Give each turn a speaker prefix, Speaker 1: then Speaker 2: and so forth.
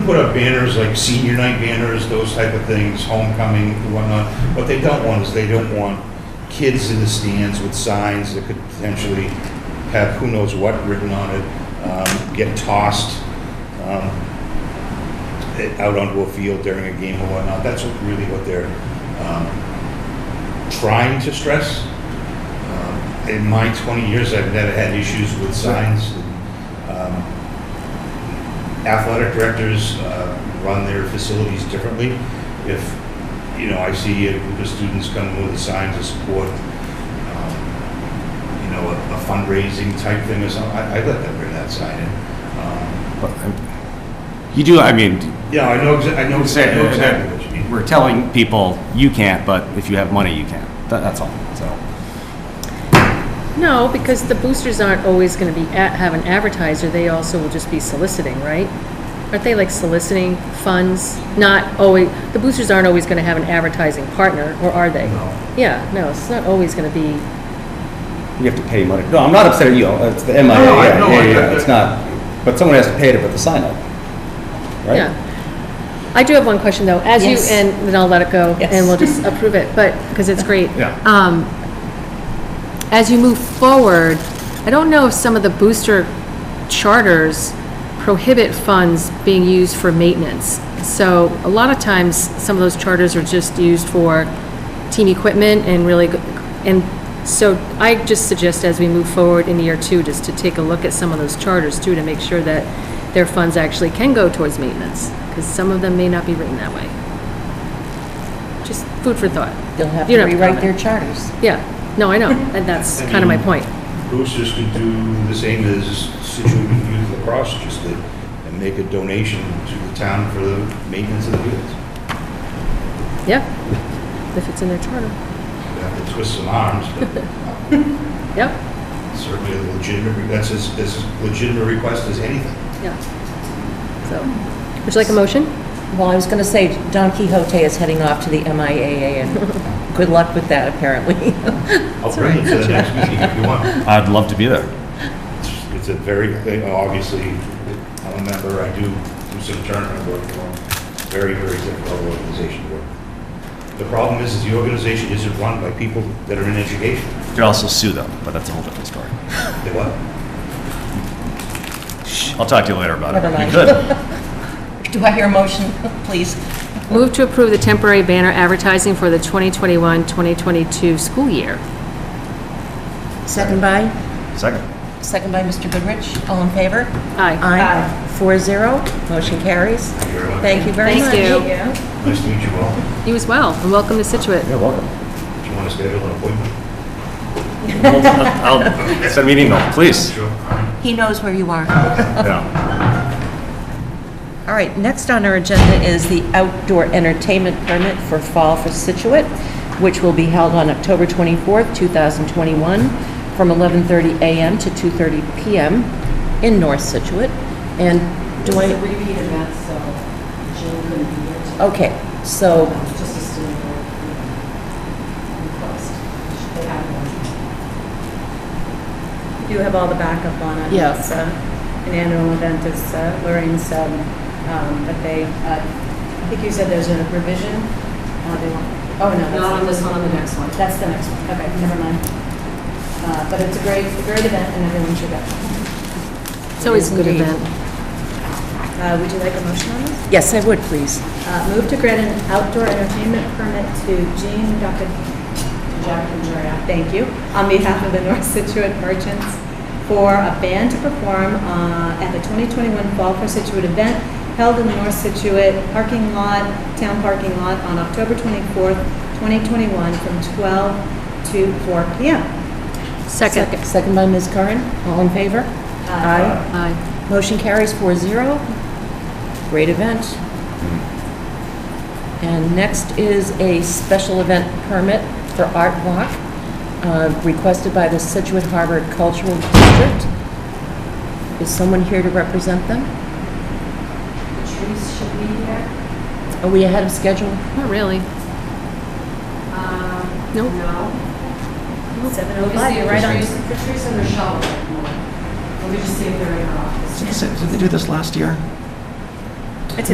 Speaker 1: Put up banners like senior night banners, those type of things, homecoming and whatnot. What they don't want is they don't want kids in the stands with signs that could potentially have who knows what written on it, um, get tossed um, eh, out onto a field during a game or whatnot. That's what- really what they're um, trying to stress. Um, In my 20 years, I've never had issues with signs. Um, athletic directors uh, run their facilities differently. If, you know, I see a group of students come with a sign to support, um, you know, a a fundraising type thing or something, I I let them bring that sign in. Um,
Speaker 2: um, You do, I mean,
Speaker 1: Yeah, I know, exa- I know I know exactly what you mean.
Speaker 2: we're telling people, you can't, but if you have money, you can. Tha- That's all, so.
Speaker 3: No, because the boosters aren't always going to be, a- have an advertiser, they also will just be soliciting, right? Aren't they like soliciting funds? Not always, the boosters aren't always going to have an advertising partner, or are they?
Speaker 1: No.
Speaker 3: Yeah, no, it's not always going to be,
Speaker 4: You have to pay money. No, I'm not upset at you. It's the MIA.
Speaker 1: No, I-
Speaker 4: yeah,
Speaker 1: no,
Speaker 4: yeah,
Speaker 1: I-
Speaker 4: yeah, It's not, but someone has to pay to put the sign up. Right?
Speaker 3: yeah. I do have one question, though, as you,
Speaker 5: Yes.
Speaker 3: and then I'll let it go,
Speaker 5: Yes.
Speaker 3: and we'll just approve it, but, because it's great.
Speaker 2: Yeah.
Speaker 3: Um, As you move forward, I don't know if some of the booster charters prohibit funds being used for maintenance. So a lot of times, some of those charters are just used for team equipment and really, go- and so I just suggest as we move forward in year two, just to take a look at some of those charters too, to make sure that their funds actually can go towards maintenance, because some of them may not be written that way. Just food for thought.
Speaker 5: They'll have
Speaker 3: You
Speaker 5: to
Speaker 3: don't have to
Speaker 5: rewrite their
Speaker 3: comment.
Speaker 5: charters.
Speaker 3: Yeah, no, I know, and that's
Speaker 1: I
Speaker 3: kind of my
Speaker 1: mean-
Speaker 3: point.
Speaker 1: Boosters could do the same as Situate Youth Lacrosse just did, and make a donation to the town for the maintenance of the fields.
Speaker 3: Yeah, if it's in their charter.
Speaker 1: You'd have to twist some arms, but
Speaker 3: Yep,
Speaker 1: certainly a legitimate, that's as, as legitimate a request as anything.
Speaker 3: yeah. So, would you like a motion?
Speaker 5: Well, I was going to say Don Quixote is heading off to the MIAA, and good luck with that, apparently.
Speaker 1: I'll bring it to the next meeting if you want.
Speaker 2: I'd love to be there.
Speaker 1: It's- It's a very, thing. obviously, I'm a member, I do do some tournament work for them. Very, very difficult organization to work. with. The problem is, is the organization isn't run by people that are in education.
Speaker 2: Could also sue them, but that's a whole different story.
Speaker 1: They what?
Speaker 2: I'll talk to you later about it.
Speaker 5: Never
Speaker 2: You
Speaker 5: mind.
Speaker 2: could.
Speaker 5: Do I hear a motion, please?
Speaker 3: Move to approve the temporary banner advertising for the 2021-2022 school year.
Speaker 5: Second by?
Speaker 2: Second.
Speaker 5: Second by Mr. Goodrich. All in favor?
Speaker 3: Aye.
Speaker 5: Aye. Four zero. Motion carries.
Speaker 1: Thank you very much.
Speaker 5: Thank you very much.
Speaker 3: Thank you.
Speaker 1: Nice to meet you all.
Speaker 3: You as well, and welcome to Situate.
Speaker 4: You're welcome.
Speaker 1: Do you want to schedule an appointment?
Speaker 2: I'll I'll send me an email, please.
Speaker 1: Sure.
Speaker 5: He knows where you are.
Speaker 2: Yeah.
Speaker 5: All right, next on our agenda is the outdoor entertainment permit for Fall for Situate, which will be held on October 24th, 2021, from 11:30 a.m. to 2:30 p.m. in North Situate. And do
Speaker 6: It's a
Speaker 5: I,
Speaker 6: repeat event, so Jill couldn't be here tonight.
Speaker 5: okay, so,
Speaker 6: Um, Just a student request. They have one. You have all the backup on it.
Speaker 5: Yeah.
Speaker 6: It's, uh, An annual event, as uh, Lorraine said, um, but they, uh, I think you said there's a revision. Uh, they want- Oh, no. that's
Speaker 3: Not on this one, on the next one.
Speaker 6: That's the next one. Okay, never mind. Uh, But it's a great, a great event, and everyone should go.
Speaker 3: It's always a good
Speaker 5: Indeed.
Speaker 3: event.
Speaker 6: Uh, Would you like a motion on this?
Speaker 5: yes, I would, please.
Speaker 6: Uh, Move to grant an outdoor entertainment permit to Jean Duckett, Jack and Joya, thank you, on behalf of the North Situate Merchants for a band to perform uh, at the 2021 Fall for Situate event held in the North Situate parking lot, town parking lot, on October 24th, 2021, from 12 to 4 p.m.
Speaker 3: Second.
Speaker 5: Second by Ms. Curran. All in favor? Aye.
Speaker 3: Aye.
Speaker 5: Motion carries 4-0. Great event. And next is a special event permit for Art Walk, uh, requested by the Situate Harbor Cultural District. Is someone here to represent them?
Speaker 6: Patrice should be here.
Speaker 5: Are we ahead of schedule?
Speaker 3: Not really. Nope.
Speaker 6: No.
Speaker 3: You're
Speaker 6: 7:05,
Speaker 3: right on.
Speaker 6: Patrice and Michelle. Let me just see if they're in our office.
Speaker 7: Did they do this last year?